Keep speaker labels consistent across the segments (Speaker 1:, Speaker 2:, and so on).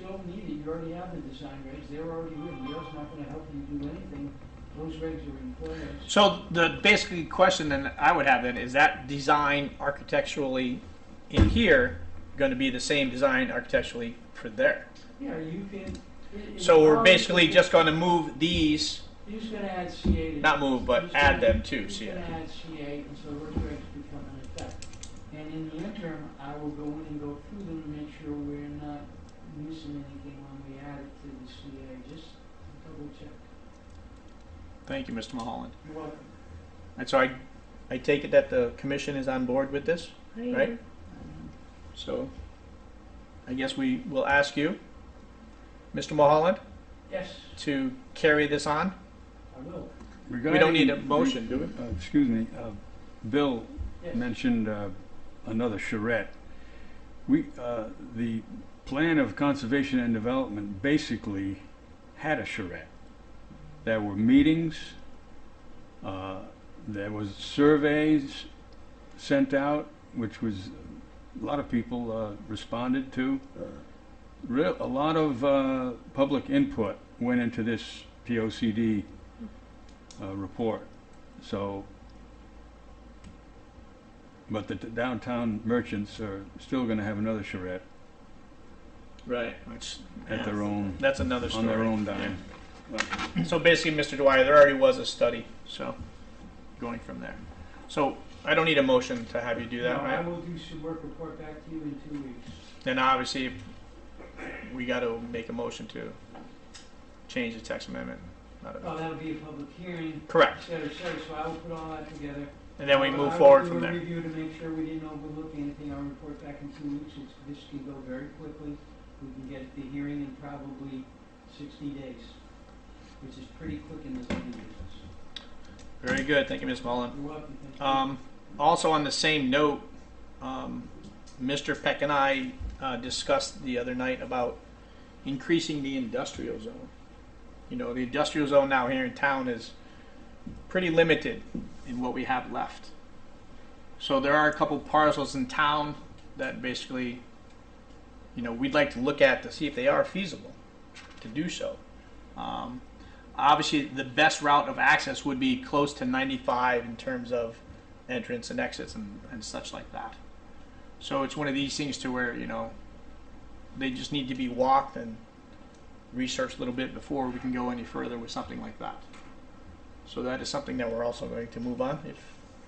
Speaker 1: don't need it, you already have the design regs, they're already written, Yale's not gonna help you do anything, those regs are in place.
Speaker 2: So the basically question then I would have then is that design architecturally in here going to be the same design architecturally for there?
Speaker 1: Yeah, you can. it- it's
Speaker 2: So we're
Speaker 1: already-
Speaker 2: basically just going to move these,
Speaker 1: You're just gonna add CA to.
Speaker 2: not move,
Speaker 1: you're
Speaker 2: but
Speaker 1: just
Speaker 2: add
Speaker 1: gonna-
Speaker 2: them to
Speaker 1: you're just gonna
Speaker 2: CA.
Speaker 1: add CA, and so those regs become an effect. And in the interim, I will go in and go through them and make sure we're not missing anything when we add it to the CA, just double check.
Speaker 2: Thank you, Mr. Mulholland.
Speaker 1: You're welcome.
Speaker 2: And so I, I take it that the commission is on board with this,
Speaker 3: uh,
Speaker 2: right? So I guess we will ask you, Mr. Mulholland,
Speaker 1: Yes,
Speaker 2: to carry this on.
Speaker 1: I will,
Speaker 2: We don't need a motion, do we?
Speaker 4: Uh, Excuse me, uh, Bill
Speaker 1: yes.
Speaker 4: mentioned uh, another charrette. We, uh, the plan of conservation and development basically had a charrette. There were meetings, uh, there was surveys sent out, which was, uh, a lot of people uh, responded to. Real, a lot of uh, public input went into this POCD uh, report. So but the t- downtown merchants are still going to have another charrette
Speaker 2: Right.
Speaker 4: at their own,
Speaker 2: That's another
Speaker 4: on
Speaker 2: story.
Speaker 4: their own dime.
Speaker 2: So basically, Mr. Dwyer, there already was a study, so going from there. So I don't need a motion to have you do that,
Speaker 1: No, I
Speaker 2: right?
Speaker 1: will do some work report back to you in two weeks.
Speaker 2: Then obviously, we got to make a motion to change the text amendment. Not a-
Speaker 1: Oh, that'll be a public hearing, et
Speaker 2: Correct.
Speaker 1: cetera, et cetera, so I will put all that together.
Speaker 2: And then we
Speaker 1: I will-
Speaker 2: move forward from
Speaker 1: I will do
Speaker 2: there.
Speaker 1: a review to make sure we didn't overlook anything, I'll report back in two weeks, it's, this can go very quickly. We can get the hearing in probably sixty days, which is pretty quick in this zoning business.
Speaker 2: Very good. Thank you, Ms. Mullen.
Speaker 1: You're welcome, thank you.
Speaker 2: Um, also, on the same note, um, Mr. Peck and I uh, discussed the other night about increasing the industrial zone. You know, the industrial zone now here in town is pretty limited in what we have left. So there are a couple parcels in town that basically, you know, we'd like to look at to see if they are feasible to do so. Um, obviously, the best route of access would be close to 95 in terms of entrance and exits and, and such like that. So it's one of these things to where, you know, they just need to be walked and researched a little bit before we can go any further with something like that. So that is something that we're also going to move on, if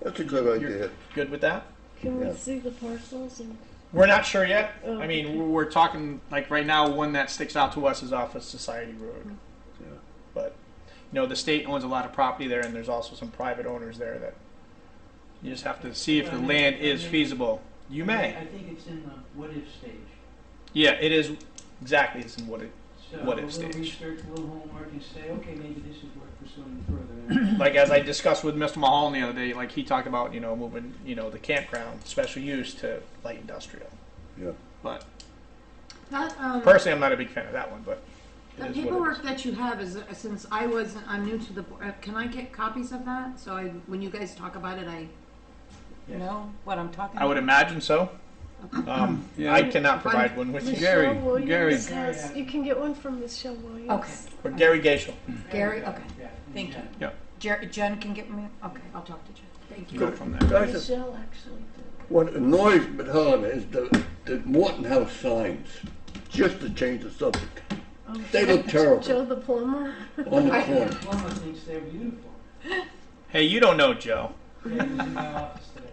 Speaker 5: That's a good idea.
Speaker 2: good with that.
Speaker 3: Can
Speaker 5: Yeah.
Speaker 3: we see the parcels and?
Speaker 2: We're not sure yet.
Speaker 3: Oh,
Speaker 2: I mean, we're- we're talking, like right now, one that sticks out to us is off of Society Road.
Speaker 5: Yeah.
Speaker 2: But, you know, the state owns a lot of property there, and there's also some private owners there that you just have to see if the land is feasible. You may.
Speaker 1: I think it's in the what-if stage.
Speaker 2: Yeah, it is exactly it's in what it
Speaker 1: So
Speaker 2: What if
Speaker 1: we'll
Speaker 2: stage?
Speaker 1: research, we'll homework and say, okay, maybe this is worth pursuing further.
Speaker 2: like as I discussed with Mr. Mahal the other day, like he talked about, you know, moving, you know, the campground special use to light industrial.
Speaker 5: Yeah.
Speaker 2: But
Speaker 6: That, um,
Speaker 2: personally I'm not a big fan of that one, but
Speaker 6: the
Speaker 2: it is what it
Speaker 6: paperwork
Speaker 2: is.
Speaker 6: that you have is, uh, since I was, I'm new to the, bo- uh, can I get copies of that? So I, when you guys talk about it, I
Speaker 1: Yes.
Speaker 6: know what I'm talking about?
Speaker 2: I would imagine so. Um,
Speaker 4: Yeah.
Speaker 2: I cannot provide one with you.
Speaker 4: Gary,
Speaker 3: Michelle Williams
Speaker 4: Gary.
Speaker 3: has- You can get one from Michelle Williams.
Speaker 6: Okay.
Speaker 2: Or Gary Gaishel.
Speaker 6: Gary, okay.
Speaker 1: Yeah,
Speaker 6: Thank you.
Speaker 1: yeah.
Speaker 6: Jer- Jen can get me, okay, I'll talk to Jen. Thank you.
Speaker 2: Go from there.
Speaker 5: Guys, it's-
Speaker 3: Michelle actually did.
Speaker 5: what annoys me, Helen, is the, the Morton House signs, just to change the subject, they look terrible
Speaker 3: Oh, Joe the plumber.
Speaker 5: on the
Speaker 1: Yeah,
Speaker 5: corner.
Speaker 1: Plumber thinks they're beautiful.
Speaker 2: Hey, you don't know Joe.
Speaker 1: Yeah, he was in my office today.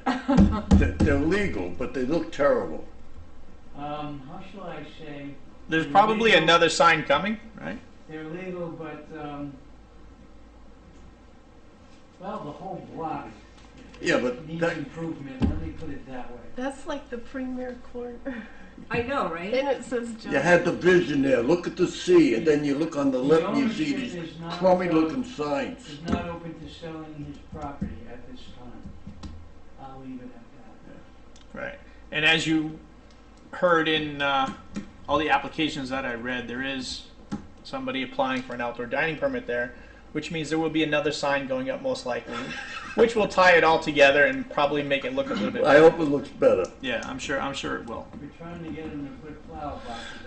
Speaker 5: They're, they're legal, but they look terrible.
Speaker 1: Um, how shall I say,
Speaker 2: There's probably another sign coming, right?
Speaker 1: they're legal, but, um, well, the whole block
Speaker 5: Yeah, but
Speaker 1: needs
Speaker 5: that,
Speaker 1: improvement, let me put it that way.
Speaker 3: That's like the premier corner.
Speaker 6: I know, right?
Speaker 3: And it says Joe.
Speaker 5: you had the vision there, look at the sea, and then you look on the left and you see
Speaker 1: ownership
Speaker 5: these
Speaker 1: is not
Speaker 5: crummy
Speaker 1: open-
Speaker 5: looking signs.
Speaker 1: Is not open to selling his property at this time. I'll leave it at
Speaker 2: Right. And as you heard in uh, all the applications that I read, there is somebody applying for an outdoor dining permit there, which means there will be another sign going up most likely, which will tie it all together and probably make it look a little bit.
Speaker 5: I hope it looks better.
Speaker 2: yeah, I'm sure. I'm sure it will.
Speaker 1: that. We're trying to get him to put flower boxes